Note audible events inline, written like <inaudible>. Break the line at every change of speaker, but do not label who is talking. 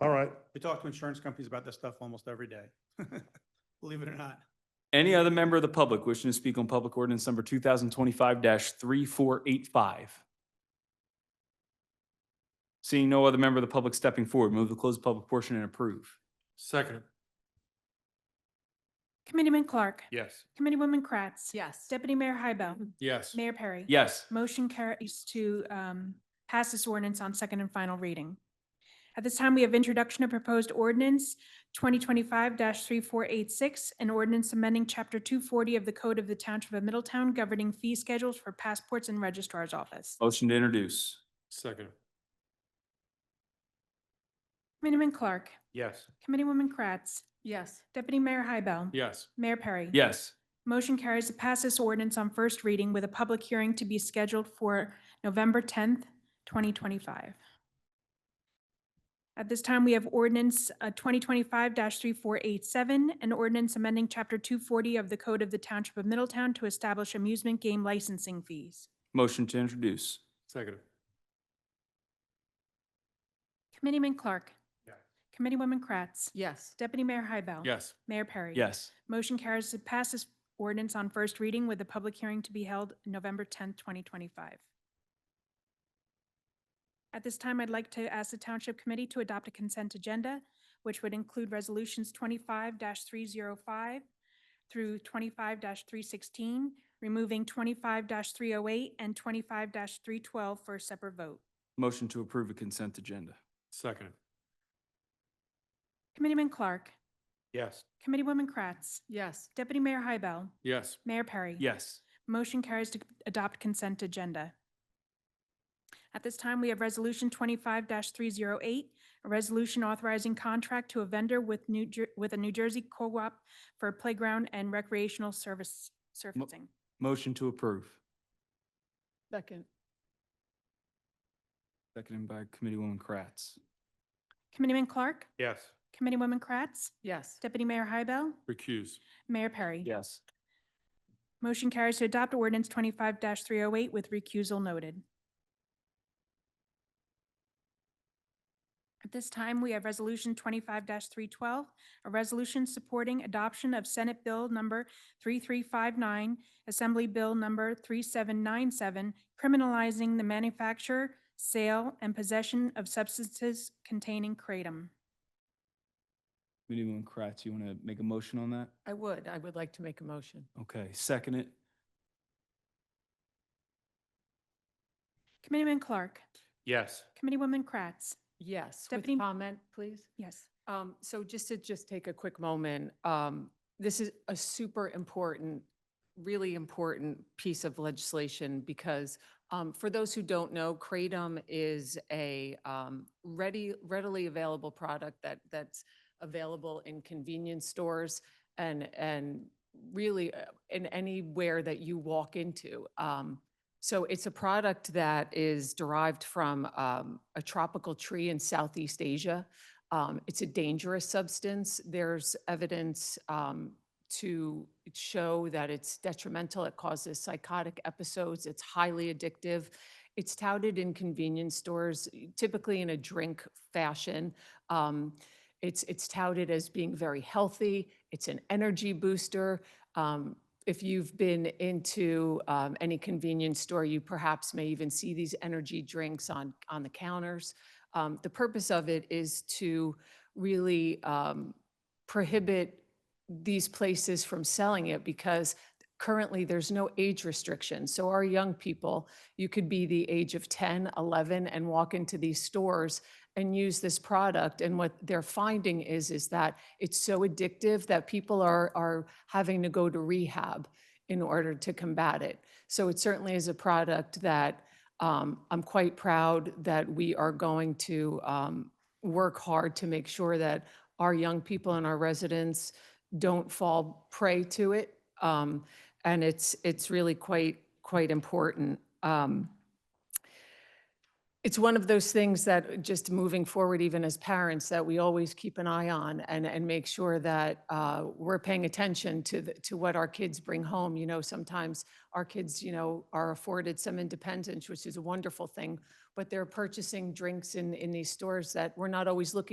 All right.
We talk to insurance companies about this stuff almost every day. <laughs> Believe it or not.
Any other member of the public wishing to speak on public ordinance number two thousand twenty-five three four eight five? Seeing no other member of the public stepping forward, move to close the public portion and approve.
Second.
Committeeman Clark.
Yes.
Committeewoman Kratz.
Yes.
Deputy Mayor Hybel.
Yes.
Mayor Perry.
Yes.
Motion carries to um, pass this ordinance on second and final reading. At this time, we have introduction of proposed ordinance twenty twenty-five three four eight six, an ordinance amending chapter two forty of the Code of the Township of Middletown governing fee schedules for passports and registrar's office.
Motion to introduce.
Second.
Committeeman Clark.
Yes.
Committeewoman Kratz.
Yes.
Deputy Mayor Hybel.
Yes.
Mayor Perry.
Yes.
Motion carries to pass this ordinance on first reading with a public hearing to be scheduled for November 10th, 2025. At this time, we have ordinance uh, 2025-3487, an ordinance amending Chapter 240 of the Code of the Township of Middletown to establish amusement game licensing fees.
Motion to introduce.
Second.
Committeeman Clark.
Yeah.
Committeewoman Kratz.
Yes.
Deputy Mayor Hybel.
Yes.
Mayor Perry.
Yes.
Motion carries to pass this ordinance on first reading with a public hearing to be held November 10th, 2025. At this time, I'd like to ask the Township Committee to adopt a consent agenda, which would include Resolutions 25-305 through 25-316, removing 25-308 and 25-312 for a separate vote.
Motion to approve a consent agenda.
Second.
Committeeman Clark,
Yes.
Committeewoman Kratz,
Yes.
Deputy Mayor Hybel,
Yes.
Mayor Perry.
Yes.
Motion carries to adopt consent agenda. At this time, we have Resolution twenty-five three zero eight, a resolution authorizing contract to a vendor with New Jer- with a New Jersey co-op for playground and recreational service surfacing.
Motion to approve.
Second.
Seconded by Committeewoman Kratz.
Committeeman Clark,
Yes.
Committeewoman Kratz,
Yes.
Deputy Mayor Hybel,
Recuse.
Mayor Perry.
Yes.
Motion carries to adopt ordinance twenty-five three oh eight with recusal noted. At this time, we have Resolution twenty-five three twelve, a resolution supporting adoption of Senate Bill Number three-three-five-nine, Assembly Bill Number three-seven-nine-seven, criminalizing the manufacture, sale, and possession of substances containing kratom.
Committeewoman Kratz, you want to make a motion on that?
I would. I would like to make a motion.
Okay, second it.
Committeeman Clark,
Yes.
Committeewoman Kratz,
Yes.
Deputy-
With comment, please.
yes.
Um, so just to just take a quick moment, um, this is a super important, really important piece of legislation because um, for those who don't know, Kratom is a um, ready, readily available product that that's available in convenience stores and and really uh, in anywhere that you walk into. Um, so it's a product that is derived from um, a tropical tree in Southeast Asia. Um, it's a dangerous substance. There's evidence um, to show that it's detrimental. It causes psychotic episodes. It's highly addictive. It's touted in convenience stores, typically in a drink fashion. Um, it's it's touted as being very healthy. It's an energy booster. Um, if you've been into um, any convenience store, you perhaps may even see these energy drinks on on the counters. Um, the purpose of it is to really um, prohibit these places from selling it because currently there's no age restriction. So our young people, you could be the age of 10, 11 and walk into these stores and use this product. And what they're finding is, is that it's so addictive that people are, are having to go to rehab in order to combat it. So it certainly is a product that um, I'm quite proud that we are going to um, work hard to make sure that our young people and our residents don't fall prey to it. Um, And it's, it's really quite, quite important. Um, It's one of those things that just moving forward, even as parents, that we always keep an eye on and, and make sure that uh, we're paying attention to, the- to what our kids bring home. You know, sometimes our kids, you know, are afforded some independence, which is a wonderful thing, but they're purchasing drinks in, in these stores that we're not always looking